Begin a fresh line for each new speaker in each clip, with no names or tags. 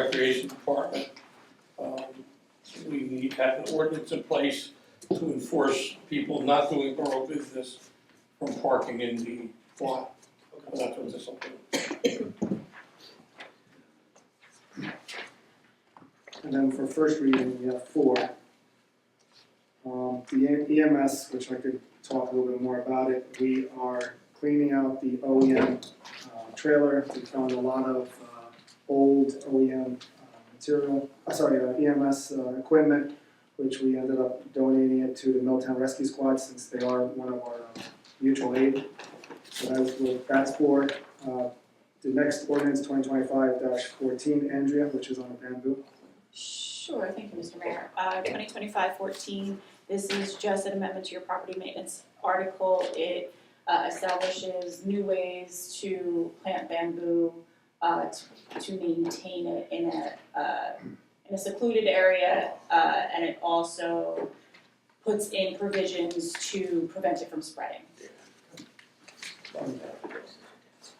Recreation Department. Um, We need to have an ordinance in place to enforce people not doing borough business from parking in the lot. And That's what this will do.
And then for first reading, we have four. Um, the EMS, which I could talk a little bit more about it, we are cleaning out the OEM uh, trailer. We found a lot of uh, old OEM uh, material, uh, sorry, uh, EMS uh, equipment, which we ended up donating it to the Milltown Rescue Squad since they are one of our uh, mutual aid. So that's, what that's for. Uh, the next ordinance, twenty twenty-five fourteen, Andrea, which is on a bamboo.
Sure, thank you, Mr. Mayor. Uh, 2025-14, this is just an amendment to your property maintenance article. It uh, establishes new ways to plant bamboo, uh, t- to maintain it in a, uh, in a secluded area. uh, And it also puts in provisions to prevent it from spreading.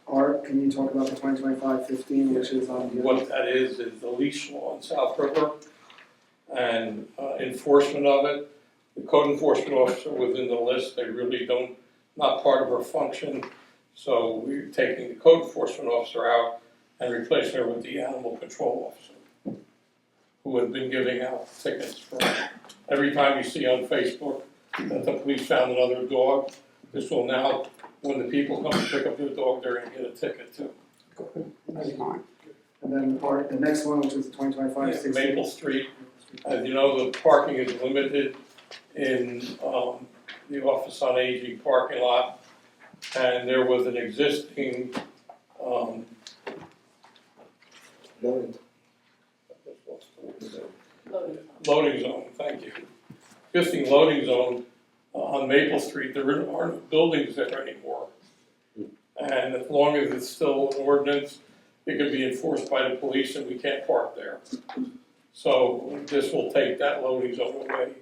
Art, can you talk about the 2025-15, which is on the,
What that is, is the leash law in South River and uh, enforcement of it. The code enforcement officer within the list, they really don't, not part of her function. So we're taking the code enforcement officer out and replacing her with the animal control officer, who has been giving out tickets for, every time you see on Facebook that the police found another dog, this will now, when the people come to pick up their dog, they're gonna get a ticket too.
and then Art, the next one, which is the 2025-16.
Maple Street As you know, the parking is limited in um, the Office on Aging parking lot. And there was an existing, um,
Loaded.
Loaded.
loading zone, thank you. Existing loading zone uh, on Maple Street, there aren't- aren't buildings there anymore. And as long as it's still an ordinance, it can be enforced by the police and we can't park there. So this will take that loading zone away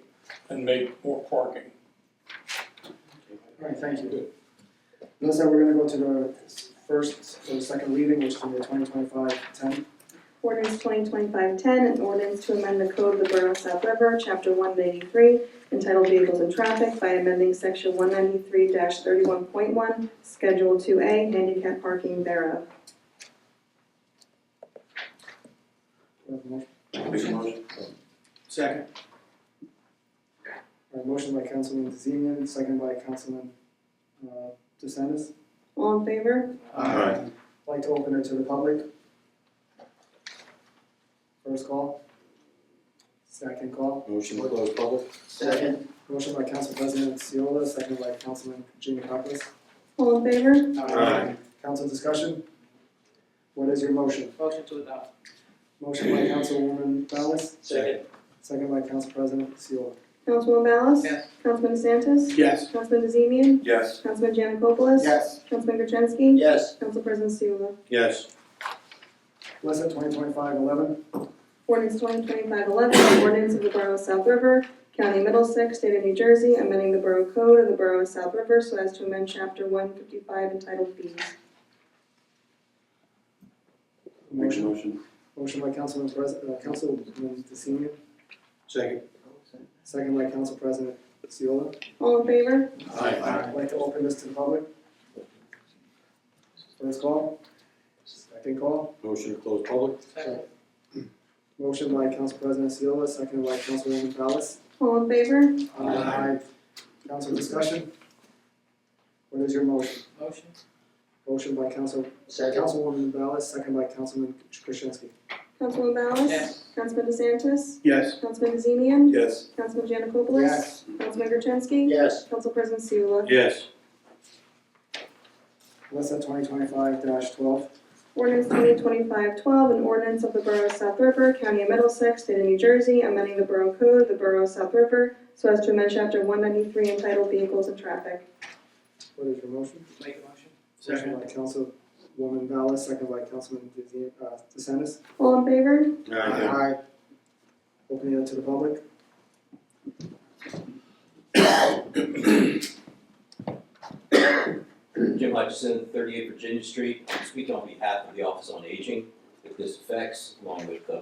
and make more parking.
All right, thank you. Let's say we're gonna go to the first, or second reading, which is the 2025-10.
Ordinance 2025-10, an ordinance to amend the code of the Borough of South River, Chapter 193, entitled Vehicles and Traffic by amending Section 193-31.1, Schedule 2A, handicap parking thereof.
Do we have a motion?
Make a motion.
Second. All right, motion by Councilman DeZemian, second by Councilman, uh, DeSantis.
All in favor?
Aye.
Like to open it to the public? First call? Second call?
Motion to close public?
Second. Motion by Council President Seola, second by Councilman Giannakopoulos.
All in favor?
Aye.
Council discussion? What is your motion?
Motion to adopt.
Motion by Councilwoman Ballas,
Second.
second by Council President Seola.
Councilman Ballas?
Yes.
Councilman DeSantis?
Yes.
Councilman DeZemian?
Yes.
Councilman Janikopoulos?
Yes.
Councilman Gertenski?
Yes.
Council President Seula?
Yes.
Lesson twenty twenty-five eleven,
Ordinance 2025-11, an ordinance of the Borough of South River, County Middlesex, State of New Jersey, amending the Borough Code of the Borough of South River so as to amend Chapter 155 entitled fees.
Make a
motion,
motion.
motion by Councilman Pres, uh, Councilman DeSemian,
Second.
second by Council President Seola.
All in favor?
I'd like to open this to the public. First call? Second call?
Motion to close public?
Second.
Motion by Council President Seola, second by Councilwoman Ballas.
All in favor?
Aye. Council discussion? What is your motion?
Motion.
Motion by Council, Councilwoman Ballas, second by Councilman Krasinski.
Councilman Ballas?
Yes.
Councilman DeSantis?
Yes.
Councilman DeZemian?
Yes.
Councilman Janikopoulos? Councilman Gertenski?
Yes.
Council President Seula?
Yes.
Alyssa, twenty twenty-five twelve.
Ordinance 2025-12, an ordinance of the Borough of South River, County of Middlesex, State of New Jersey, amending the Borough Code of the Borough of South River so as to amend Chapter 193 entitled Vehicles and Traffic.
What is your motion?
Make a motion.
Motion by Councilwoman Ballas, second by Councilman DeZ- uh, DeSantis.
All in favor?
Aye. Opening it to the public.
Jim Hutchison, thirty-eight Virginia Street, I'm speaking on behalf of the Office on Aging. if this affects, along with uh, the